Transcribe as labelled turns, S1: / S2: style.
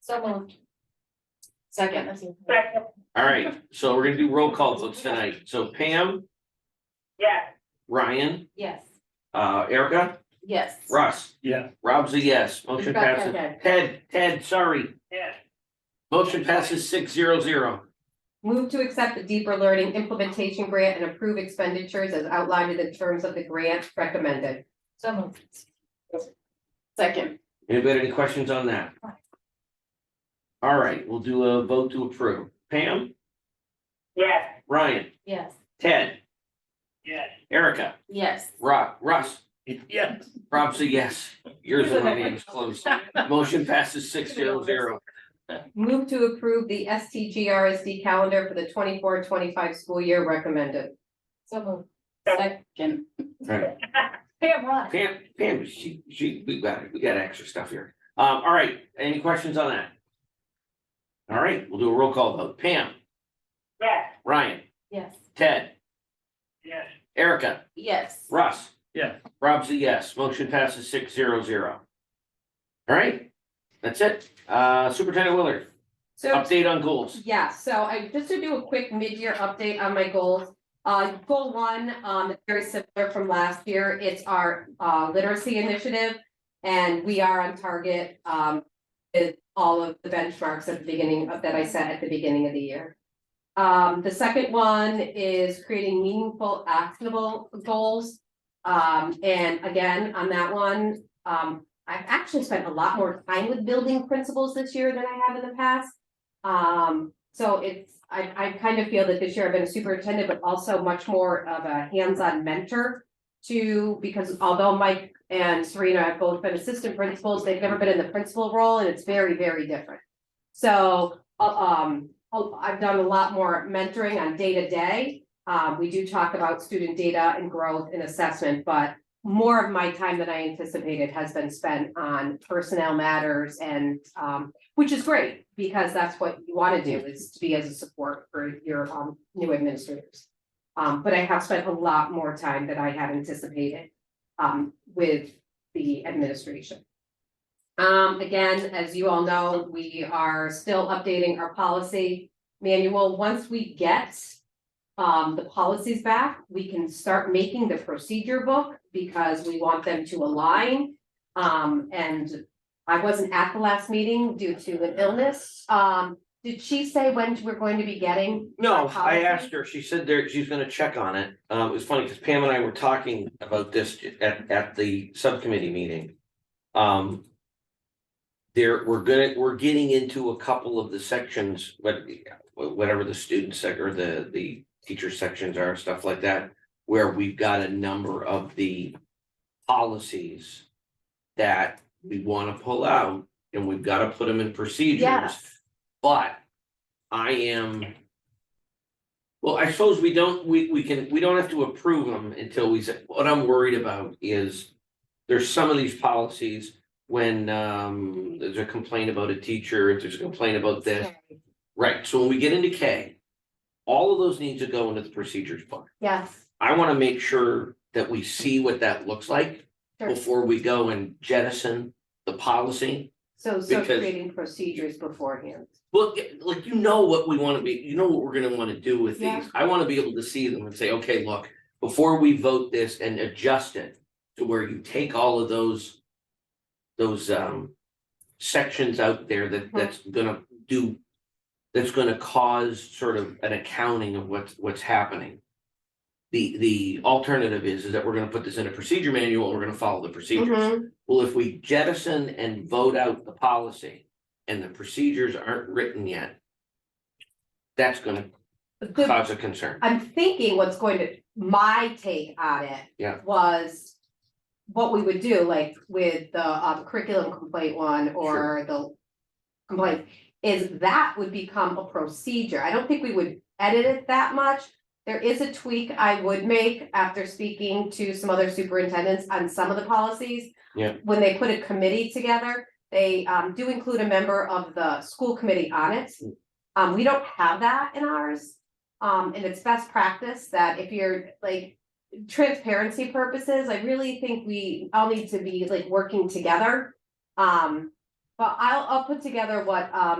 S1: So moved. Second.
S2: Second,
S3: All right, so we're gonna do roll call votes tonight. So Pam,
S2: yes,
S3: Ryan,
S1: Yes.
S3: uh, Erica,
S1: Yes.
S3: Russ,
S4: Yeah,
S3: Rob's a yes. Motion
S1: Forgot
S3: passes.
S1: Ted.
S3: Ted, Ted, sorry.
S2: yes,
S3: Motion passes six zero zero.
S5: Move to accept the deeper learning implementation grant and approve expenditures as outlined in the terms of the grant recommended.
S1: So moved. Second.
S3: Anybody have any questions on that? All right, we'll do a vote to approve. Pam,
S2: yes,
S3: Ryan,
S1: Yes.
S3: Ted,
S2: yes,
S3: Erica,
S1: Yes.
S3: Rob, Russ,
S4: yeah,
S3: Rob's a yes. Yours and my name's close. Motion passes six zero zero.
S5: Move to approve the STGRSD calendar for the 24-25 school year recommended.
S1: So moved. Second.
S3: Right.
S1: Pam, Ron.
S3: Pam, Pam, she, she, we got, we got extra stuff here. Um, all right, any questions on that? All right, we'll do a roll call vote. Pam,
S2: yes,
S3: Ryan,
S1: Yes.
S3: Ted,
S2: yes,
S3: Erica,
S1: Yes.
S3: Russ.
S4: Yeah.
S3: Rob's a yes. Motion passes six zero zero. All right, that's it. Uh, Superintendent Willard,
S5: So
S3: update on goals.
S5: Yeah, so I, just to do a quick mid-year update on my goals. Uh, goal one, um, it's very similar from last year, it's our, uh, literacy initiative. And we are on target, um, with all of the benchmarks at the beginning of, that I set at the beginning of the year. Um, the second one is creating meaningful, actionable goals. Um, and again, on that one, um, I've actually spent a lot more time with building principles this year than I have in the past. Um, so it's, I, I kind of feel that this year I've been a superintendent, but also much more of a hands-on mentor. To, because although Mike and Serena have both been assistant principals, they've never been in the principal role and it's very, very different. So, uh, um, oh, I've done a lot more mentoring on day-to-day. Um, we do talk about student data and growth and assessment, but more of my time than I anticipated has been spent on personnel matters and, um, which is great, because that's what you wanna do, is to be as a support for your um new administrators. Um, but I have spent a lot more time than I had anticipated um with the administration. Um, again, as you all know, we are still updating our policy manual. Once we get um the policies back, we can start making the procedure book because we want them to align. Um, and I wasn't at the last meeting due to an illness. Um, did she say when we're going to be getting?
S3: No, I
S5: Policy?
S3: asked her, she said there, she's gonna check on it. Uh, it was funny because Pam and I were talking about this at, at the subcommittee meeting. Um. There, we're gonna, we're getting into a couple of the sections, but whatever the student sec or the, the teacher sections are, stuff like that. Where we've got a number of the policies that we wanna pull out and we've gotta put them in procedures.
S1: Yes.
S3: But I am. Well, I suppose we don't, we, we can, we don't have to approve them until we say, what I'm worried about is. There's some of these policies when, um, there's a complaint about a teacher, if there's a complaint about this, right, so when we get into K. All of those need to go into the procedures book.
S5: Yes,
S3: I wanna make sure that we see what that looks like
S5: sure.
S3: before we go and jettison the policy.
S5: So, so
S3: because-
S5: creating procedures beforehand.
S3: Well, yeah, like you know what we wanna be, you know what we're gonna wanna do with
S5: Yeah.
S3: these, I wanna be able to see them and say, okay, look, before we vote this and adjust it. To where you take all of those. Those um sections out there that
S5: Mhm.
S3: that's gonna do. That's gonna cause sort of an accounting of what's what's happening. The the alternative is is that we're gonna put this in a procedure manual, and we're gonna follow the
S5: Mm-hmm.
S3: procedures. Well, if we jettison and vote out the policy and the procedures aren't written yet. That's gonna
S5: Mm-hmm. The-
S3: cause a concern.
S5: I'm thinking what's going to, my take on it.
S3: Yeah.
S5: Was what we would do, like with the uh, curriculum complaint one or the complaint, is that would become a procedure. I don't think we would edit it that much. There is a tweak I would make after speaking to some other superintendents on some of the policies.
S3: Yeah.
S5: When they put a committee together, they um do include a member of the school committee on it. Um, we don't have that in ours. Um, and it's best practice that if you're like transparency purposes, I really think we all need to be like working together. Um, But I'll, I'll put together what, um,